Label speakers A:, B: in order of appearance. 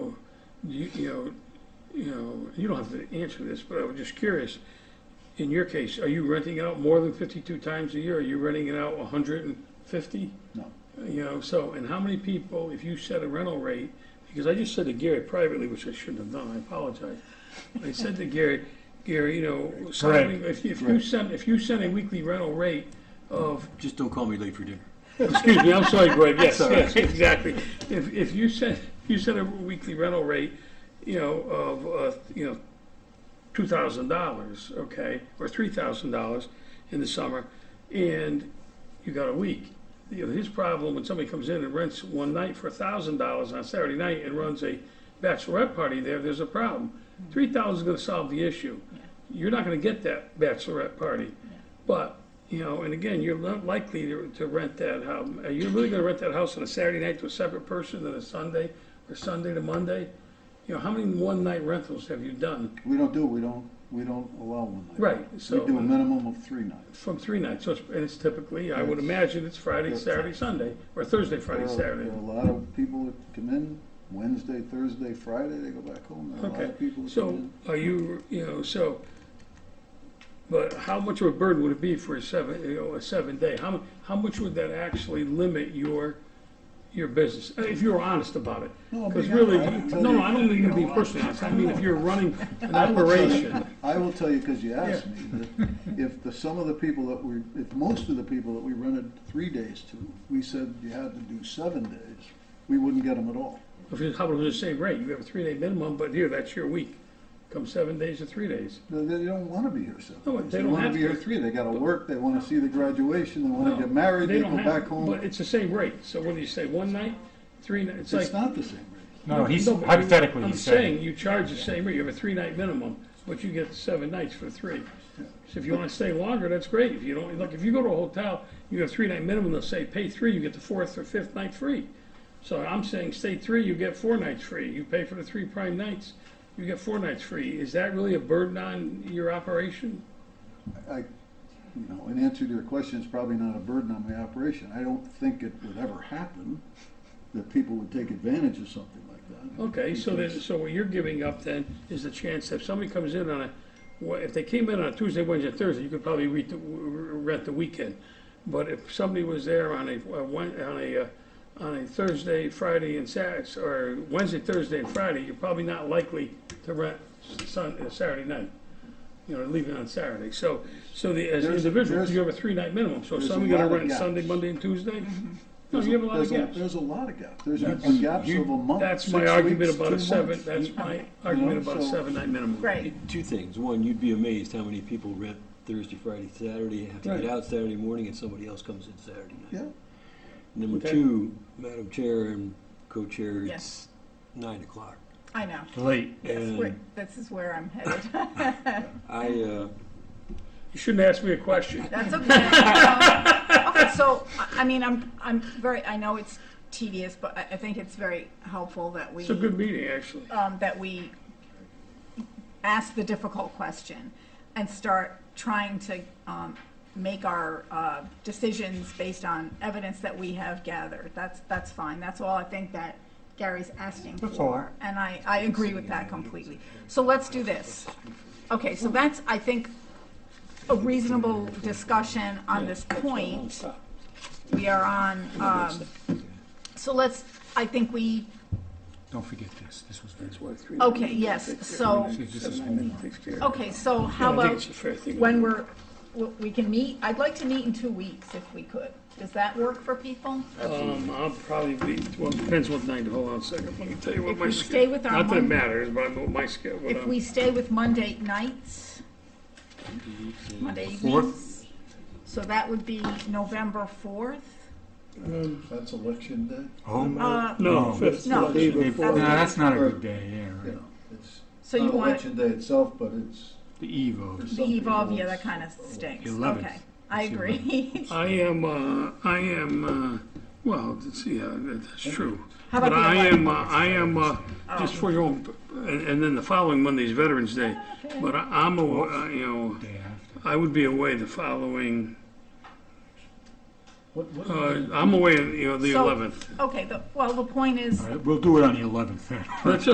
A: you, you know, you know, you don't have to answer this, but I was just curious. In your case, are you renting it out more than fifty-two times a year? Are you renting it out hundred and fifty?
B: No.
A: You know, so, and how many people, if you set a rental rate, because I just said to Gary privately, which I shouldn't have done, I apologize. I said to Gary, Gary, you know, somebody- if, if you
B: Correct.
A: send, if you send a weekly rental rate of
C: Just don't call me late for dinner.
A: Excuse me, I'm sorry, Greg, yes,
C: That's all
A: yes, exactly. If, if you set, if you set a weekly rental rate, you know, of, uh, you know, two thousand dollars, okay, or three thousand dollars in the summer, and you got a week. You know, his problem, when somebody comes in and rents one night for a thousand dollars on Saturday night and runs a bachelorette party there, there's a problem. Three thousand is gonna solve the issue. You're not gonna get that bachelorette party. But, you know, and again, you're not likely to, to rent that house. Are you really gonna rent that house on a Saturday night to a separate person than a Sunday, or Sunday to Monday? You know, how many one-night rentals have you done?
B: We don't do, we don't, we don't allow one night.
A: Right, so-
B: We do a minimum of three nights.
A: From three nights, so it's, and it's typically, I would imagine it's Friday, Saturday, Sunday, or Thursday, Friday,
B: There are-
A: Saturday.
B: There are a lot of people that come in Wednesday, Thursday, Friday, they go back home. There are a lot
A: Okay,
B: of people that
A: so
B: come in.
A: are you, you know, so, but how much of a burden would it be for a seven, you know, a seven day? How, mu- how much would that actually limit your, your business? Uh, If you were honest about it.
B: No, I'm
A: Because
B: being
A: really,
B: honest. I can
A: no,
B: tell
A: no,
B: you-
A: I don't mean to be personally honest. I mean, if you're running an
B: I will tell you-
A: operation.
B: I will tell you, because you asked
A: Yeah.
B: me, that if the, some of the people that we, if most of the people that we rented three days to, we said you had to do seven days, we wouldn't get them at all.
A: If you, how about the same rate? You have a three-day minimum, but here, that's your week. Come seven days or three days.
B: They, they don't wanna be here seven
A: No,
B: days.
A: they don't
B: wanna
A: have
B: be here
A: to.
B: three, they gotta work, they wanna see the graduation, they
A: No,
B: wanna get married, they
A: don't
B: go
A: have-
B: back home.
A: But it's the same rate. So what do you say, one night, three nights?
B: It's not the same rate.
D: No, no, he's
A: No, but you-
D: hypothetically,
A: I'm
D: he's saying.
A: saying you charge the same rate, you have a three-night minimum, but you get seven nights for three. So if you wanna stay longer, that's great, if you don't, look, if you go to a hotel, you have three-night minimum, they'll say pay three, you get the fourth or fifth night free. So I'm saying stay three, you get four nights free, you pay for the three prime nights, you get four nights free, is that really a burden on your operation?
B: I, you know, in answer to your question, it's probably not a burden on my operation. I don't think it would ever happen that people would take advantage of something like that.
A: Okay, so then, so what you're giving up then is the chance that if somebody comes in on a, well, if they came in on a Tuesday, Wednesday, Thursday, you could probably rent the, rent the weekend. But if somebody was there on a, a Wed- on a, uh, on a Thursday, Friday and Sat, or Wednesday, Thursday and Friday, you're probably not likely to rent Sun, uh, Saturday night. You know, leaving on Saturday. So, so the, as
B: There's-
A: individuals,
B: there's-
A: you have a three-night minimum. So
B: there's a
A: somebody gonna
B: lot of
A: rent
B: gaps. Mm-hmm.
A: Sunday, Monday and Tuesday? No, you have a lot of
B: There's
A: gaps.
B: There's a lot of gaps. There's been gaps of a
E: Oh,
B: month,
A: That's
B: six
A: my argument
B: weeks,
A: about
B: two
A: a seven,
B: months.
A: that's my argument about a
B: so-
A: seven-night minimum.
E: Right,
C: Two things. One, you'd be amazed how many people rent Thursday, Friday, Saturday, have to
A: Right.
C: get out Saturday morning, and somebody else comes in Saturday night.
B: Yeah,
C: Number
A: Okay.
C: two, Madam Chair and Co-Chair, it's
E: Yes.
C: nine o'clock.
E: I know.
D: Late.
E: That's where,
C: And
E: this is where I'm headed.
C: I, uh,
A: You shouldn't ask me a question.
E: That's okay. Um, Okay, so, I- I mean, I'm, I'm very, I know it's tedious, but I, I think it's very helpful that we.
A: It's a good meeting, actually.
E: um, that we ask the difficult question and start trying to um, make our uh, decisions based on evidence that we have gathered. That's, that's fine. That's all I think that Gary's asking
D: That's all.
E: for. And I, I agree with that completely. So let's do this. Okay, so that's, I think, a reasonable discussion on this point. We are on, um, so let's, I think we
D: Don't forget this, this was very.
E: Okay, yes, so- Okay, so how
A: I think it's
E: about
A: a fair thing.
E: when we're, w- we can meet, I'd like to meet in two weeks if we could. Does that work for people?
A: Um, I'll probably be, well, it depends what night, hold on a second, let me tell you what
E: If
A: my.
E: we
A: sched-
E: stay with our
A: Not that it
E: Monday-
A: matters, but I'm- my scale, what
E: If we
A: I'm,
E: stay with Monday nights, Monday
D: Fourth?
E: evenings. So that would be November 4th?
B: that's election day.
D: Oh,
E: Uh,
A: no,
D: No.
A: fifth.
E: No.
A: Monday
D: no,
A: before.
D: that's not Oh, a
B: Or,
D: good day, yeah,
B: You
D: right.
B: know, it's
E: So you
B: not
E: want
B: election day itself, but it's.
D: the eve of.
B: for
E: the
B: some
E: eve of,
B: people,
E: yeah, that
B: it's-
E: kind of stinks.
D: Eleventh.
E: Okay, I
D: It's
E: agree.
A: I am, uh, I am, uh, well, let's see, uh, that- that's true.
E: How about
A: But
E: the Oh.
A: I am, uh,
E: 11th?
A: I am, uh, just for your own, and, and then the following Monday is Veterans Day. But I- I'm, aw- uh, you know,
D: Day after.
A: I would be away the following,
B: What, what?
A: uh, I'm away, you know, the
E: So-
A: 11th.
E: Okay, the- well, the point is,
D: All right, we'll do it on the eleventh then.
A: That's